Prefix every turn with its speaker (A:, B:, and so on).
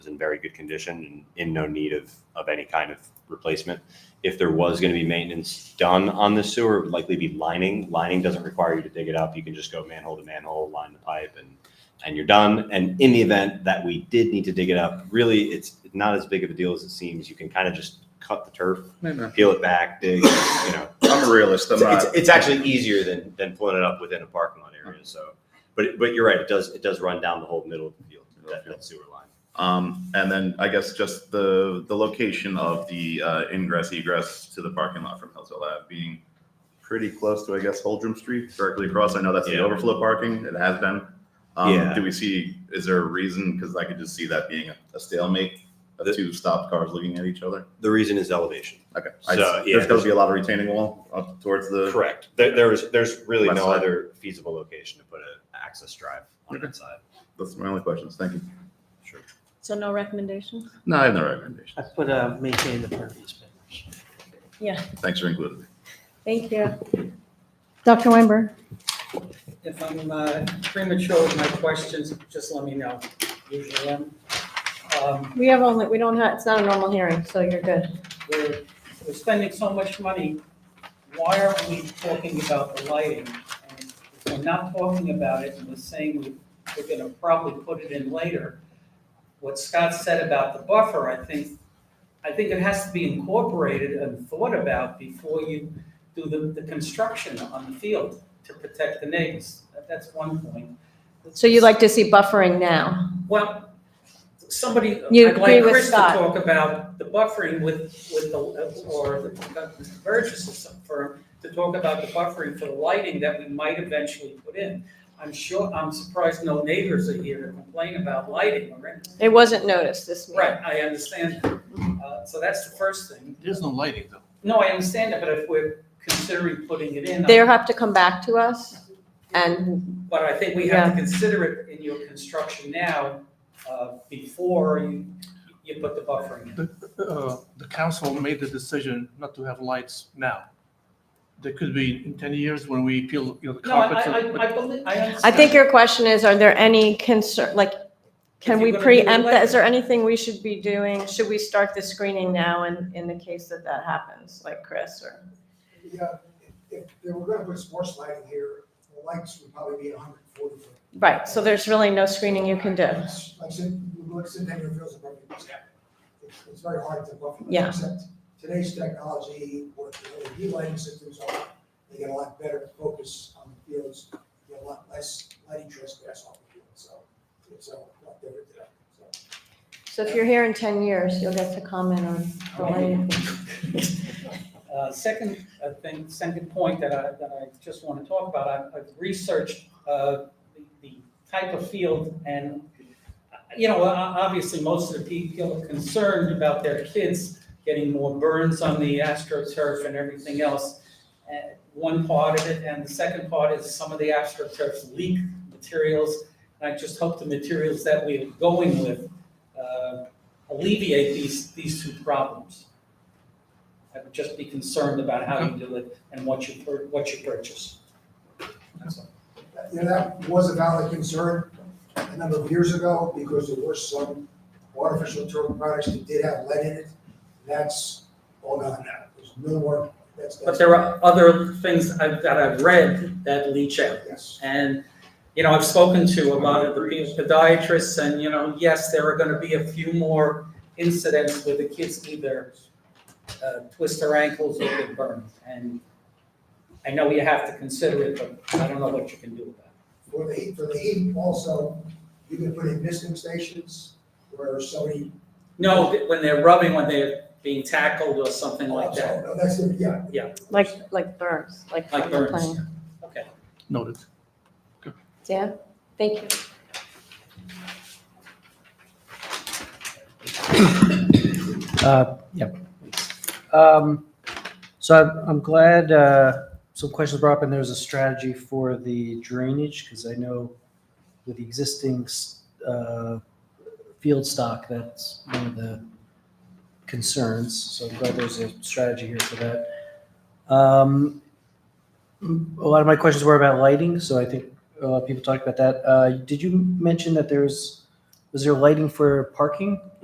A: was in very good condition and in no need of, of any kind of replacement. If there was going to be maintenance done on this sewer, it would likely be lining. Lining doesn't require you to dig it up. You can just go manhole to manhole, line the pipe and, and you're done. And in the event that we did need to dig it up, really, it's not as big of a deal as it seems. You can kind of just cut the turf,
B: No, no.
A: peel it back, dig, you know,
B: I'm a realist. I'm
A: it's, it's,
B: not.
A: it's actually easier than than pulling it up within a parking lot area. So, but but you're right. It does it does run down the whole middle of the field that, that sewer line.
B: Um, and then I guess just the the location of the uh, ingress egress to the parking lot from Hillsville Ave being pretty close to I guess Holdrum Street, directly across. I know that's the
A: Yeah.
B: overflow parking. It has been. Um,
A: Yeah.
B: Do we see? Is there a reason? Because I could just see that being a, a stalemate of
A: The-
B: two stopped cars looking at each other.
A: The reason is elevation.
B: Okay. I,
A: So,
B: s-
A: yeah,
B: there's going to be a lot of retaining wall up towards the.
A: Correct. There, there's there's really
B: West
A: no
B: side.
A: other feasible location to put an access drive on that side.
B: That's my only questions. Thank you.
A: Sure.
C: So no recommendations?
B: No, I have no recommendation.
D: I put, uh, maintain the pervious barriers.
B: Thanks for including me.
C: Thank you. Dr. Weinberg?
E: If I'm uh, premature with my questions, just let me know. Usually am. Um,
C: We have only, we don't have, it's not a normal hearing, so you're good.
E: We're, we're spending so much money, why are we talking about the lighting? And If we're not talking about it and we're saying we- we're gonna probably put it in later, what Scott said about the buffer, I think, I think it has to be incorporated and thought about before you do the, the construction on the field to protect the neighbors. That's one point.
C: So you'd like to see buffering now?
E: Well, somebody,
C: You
E: I'd
C: agree
E: like
C: with
E: Chris to
C: Scott.
E: talk about the buffering with, with the, or the- Mr. Burgess or some firm, to talk about the buffering for the lighting that we might eventually put in. I'm sure, I'm surprised no neighbors are here to complain about lighting or anything.
C: It wasn't noticed this meeting.
E: Right, I understand. Uh, So that's the first thing.
D: There's no lighting though.
E: No, I understand that, but if we're considering putting it in, um,
C: They'll have to come back to us and,
E: but I think we have to consider it in your construction now, uh, before you, you put the buffering in.
D: The, uh, the council made the decision not to have lights now. There could be in ten years when we peel, you know, the
E: No, I,
D: carpets.
E: I, I-
D: but-
E: I believe, I understand.
C: I think your question is, are there any concern, like, can
E: If
C: we
E: you're gonna do it
C: preempt that? Is
E: later.
C: there anything we should be doing? Should we start the screening now in, in the case that that happens, like Chris or?
F: Yeah, if they were gonna put sports lighting here, the lights would probably be hundred and forty foot.
C: Right, so there's really no screening you can do.
F: Like Cent- like Centennial Fields and Berkeley Fields. It's- It's very hard to buffer. them,
C: Yeah.
F: Except today's technology, what the LED lighting systems are, they get a lot better focus on the fields. You get a lot less lighting trespass off the field, so it's uh, a lot better today, so.
C: So if you're here in ten years, you'll get to comment on the lighting.
E: Uh, second uh, thing, second point that I, that I just want to talk about, I've, I've researched, uh, the- the type of field and, uh, you know, o- obviously, most of the people are concerned about their kids getting more burns on the astroturf and everything else. Uh, One part of it, and the second part is some of the astroturfs leak materials. And I just hope the materials that we're going with, uh, alleviate these, these two problems. I would just be concerned about how you do it and what you, pur- what you purchase. That's all.
F: you know, that was a valid concern a number of years ago because there were some artificial turf products that did have lead in it. That's all gone now. There's no more, that's.
E: But there are other things I've, that I've read that leach out.
F: Yes.
E: And, you know, I've spoken to a lot of the podiatrists and, you know, yes, there are gonna be a few more incidents where the kids either uh, twist their ankles or get burned. And I know you have to consider it, but I don't know what you can do about it.
F: For the heat, for the heat also, you can put in misting stations where somebody.
E: No, th- when they're rubbing, when they're being tackled or something like that.
F: No, that's, it, yeah.
E: Yeah.
C: Like, like burns, like
E: Like
C: from the
E: burns.
C: plane.
E: Okay.
D: Noted.
C: Dan, thank you.
G: Uh, Yep. Um, So I'm- I'm glad uh, some questions brought up, and there's a strategy for the drainage, because I know with the existing s- uh, field stock, that's one of the concerns. So I'm glad there's a strategy here for that. Um, A lot of my questions were about lighting, so I think a lot of people talked about that. Uh, Did you mention that there's Was there lighting for parking?